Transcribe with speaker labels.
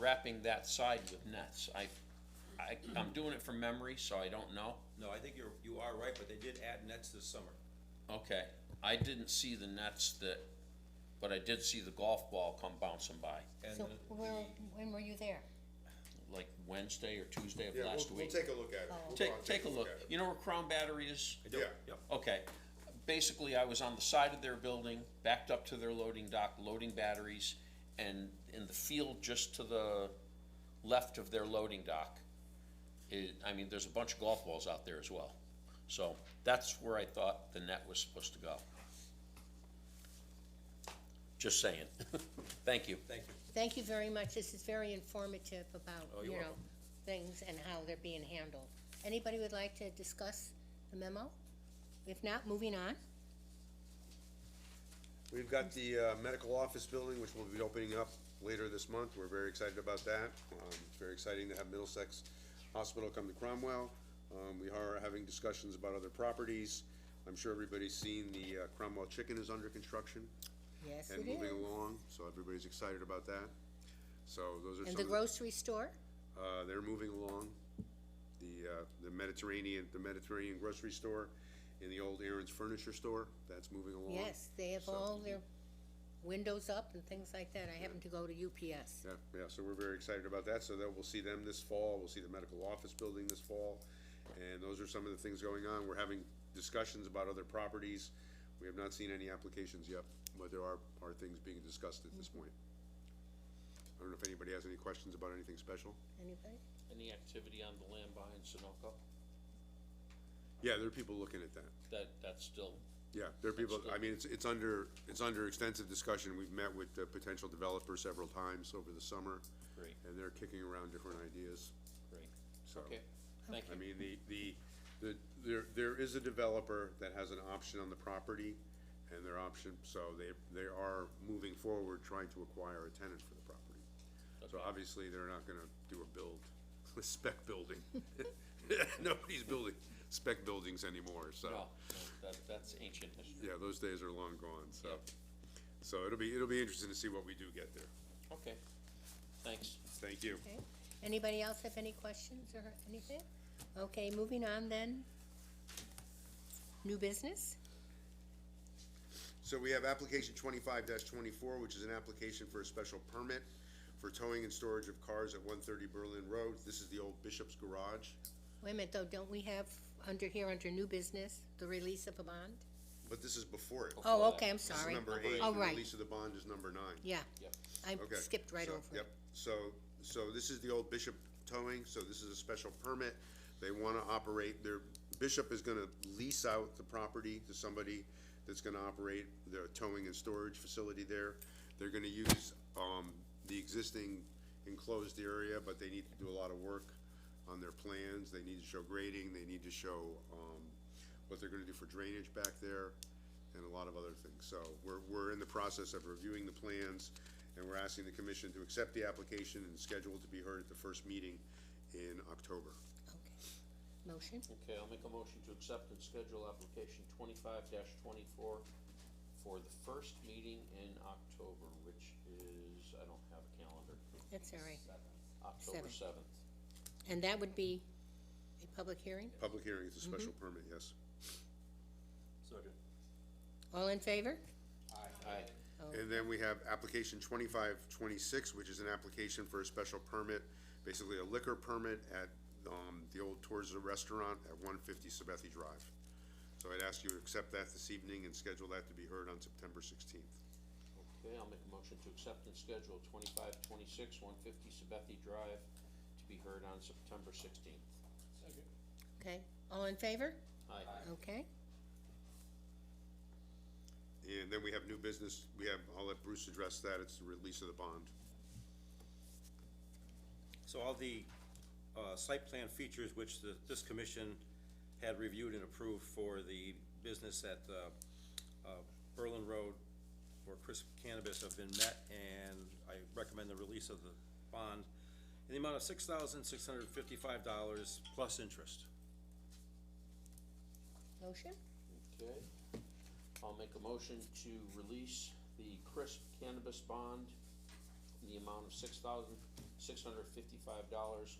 Speaker 1: wrapping that side with nets. I, I, I'm doing it from memory, so I don't know.
Speaker 2: No, I think you're, you are right, but they did add nets this summer.
Speaker 1: Okay, I didn't see the nets that, but I did see the golf ball come bouncing by,
Speaker 2: And
Speaker 3: So,
Speaker 2: the-
Speaker 3: where, when were you there?
Speaker 1: like Wednesday or Tuesday of
Speaker 4: Yeah,
Speaker 1: last
Speaker 4: we'll, we'll
Speaker 1: week.
Speaker 4: take a look at it.
Speaker 3: Oh.
Speaker 4: We'll go out
Speaker 1: Take,
Speaker 4: and
Speaker 1: take a look.
Speaker 4: at it.
Speaker 1: You know where Crown Battery is?
Speaker 2: I don't-
Speaker 4: Yeah.
Speaker 2: Yep.
Speaker 1: Okay, basically, I was on the side of their building, backed up to their loading dock, loading batteries, and in the field just to the left of their loading dock. It, I mean, there's a bunch of golf balls out there as well. So that's where I thought the net was supposed to go. Just saying. Thank you.
Speaker 2: Thank you.
Speaker 3: Thank you very much, this is very informative
Speaker 1: Oh,
Speaker 3: about, you
Speaker 1: you're
Speaker 3: know, things and how they're being handled. Anybody would like to discuss the memo? If not, moving on.
Speaker 4: We've got the, uh, medical office building, which we'll be opening up later this month. We're very excited about that. Um, it's very exciting to have Middlesex Hospital come to Cromwell. Um, we are having discussions about other properties. I'm sure everybody's seen the uh, Cromwell Chicken is under construction
Speaker 3: Yes,
Speaker 4: and
Speaker 3: it
Speaker 4: moving
Speaker 3: is.
Speaker 4: along, so everybody's excited about that. So those are
Speaker 3: And
Speaker 4: some
Speaker 3: the
Speaker 4: of the,
Speaker 3: grocery store?
Speaker 4: uh, they're moving along. The, uh, the Mediterranean, the Mediterranean grocery store and the old Aaron's Furniture Store, that's moving along.
Speaker 3: Yes, they have
Speaker 4: So-
Speaker 3: all their windows up and things like that, I happen to go to UPS.
Speaker 4: Yeah, yeah, so we're very excited about that, so that we'll see them this fall, we'll see the medical office building this fall. And those are some of the things going on, we're having discussions about other properties, we have not seen any applications yet, but there are, are things being discussed at this point. I don't know if anybody has any questions about anything special?
Speaker 3: Anybody?
Speaker 1: Any activity on the land behind Sunoco?
Speaker 4: Yeah, there are people looking at that,
Speaker 1: That, that's still,
Speaker 4: yeah, there are people, I mean, it's, it's under, it's under extensive discussion, we've met with the potential developer several times over the summer.
Speaker 1: Great.
Speaker 4: And they're kicking around different ideas,
Speaker 1: great.
Speaker 4: so.
Speaker 1: Okay, thank
Speaker 4: I
Speaker 1: you.
Speaker 4: mean, the, the, the, there, there is a developer that has an option on the property and their option, so they, they are moving forward trying to acquire a tenant for the property. So obviously, they're not gonna do a build, a spec building. Nobody's building spec buildings anymore, so.
Speaker 1: No, no, that, that's ancient history.
Speaker 4: Yeah, those days are long gone, so.
Speaker 1: Yeah.
Speaker 4: So it'll be, it'll be interesting to see what we do get there.
Speaker 1: Okay, thanks.
Speaker 4: Thank you.
Speaker 3: Okay, anybody else have any questions or anything? Okay, moving on then. New business?
Speaker 4: So we have application twenty-five twenty-four, which is an application for a special permit for towing and storage of cars at one thirty Berlin Road. This is the old Bishop's Garage.
Speaker 3: Wait a minute, though, don't we have under here, under new business, the release of a bond?
Speaker 4: But this is before it.
Speaker 3: Oh,
Speaker 1: that.
Speaker 3: okay, I'm
Speaker 4: This is
Speaker 3: sorry.
Speaker 4: number eight,
Speaker 3: Oh,
Speaker 4: and
Speaker 3: right.
Speaker 4: release of the bond is number nine.
Speaker 3: Yeah,
Speaker 1: Yep.
Speaker 3: I
Speaker 4: Okay,
Speaker 3: skipped right
Speaker 4: so-
Speaker 3: over it.
Speaker 4: Yep, so, so this is the old Bishop towing, so this is a special permit. They wanna operate, their, Bishop is gonna lease out the property to somebody that's gonna operate their towing and storage facility there. They're gonna use, um, the existing enclosed area, but they need to do a lot of work on their plans. They need to show grading, they need to show, um, what they're gonna do for drainage back there and a lot of other things. So we're, we're in the process of reviewing the plans, and we're asking the commission to accept the application and schedule it to be heard at the first meeting in October.
Speaker 3: Okay. Motion,
Speaker 1: Okay, I'll make a motion to accept and schedule application twenty-five twenty-four for the first meeting in October, which is, I don't have a calendar.
Speaker 3: that's all right.
Speaker 1: October
Speaker 3: Seven.
Speaker 1: seventh.
Speaker 3: And that would be a public hearing?
Speaker 4: Public hearing is a special permit, yes.
Speaker 3: All in favor?
Speaker 1: Aye.
Speaker 4: And then we have application twenty-five twenty-six, which is an application for a special permit, basically a liquor permit at, um, the old Torza Restaurant at one fifty Sabethy Drive. So I'd ask you to accept that this evening and schedule that to be heard on September sixteenth.
Speaker 1: Okay, I'll make a motion to accept and schedule twenty-five twenty-six, one fifty Sabethy Drive to be heard on September sixteenth.
Speaker 3: Okay, all in favor?
Speaker 1: Aye.
Speaker 3: Okay,
Speaker 4: And then we have new business, we have, I'll let Bruce address that, it's the release of the bond.
Speaker 2: So all the, uh, site plan features which the, this commission had reviewed and approved for the business at, uh, uh, Berlin Road for Crisp Cannabis have been met, and I recommend the release of the bond in the amount of six thousand six hundred fifty-five dollars plus interest.
Speaker 3: motion?
Speaker 1: Okay, I'll make a motion to release the crisp cannabis bond the amount of six thousand, six hundred fifty-five dollars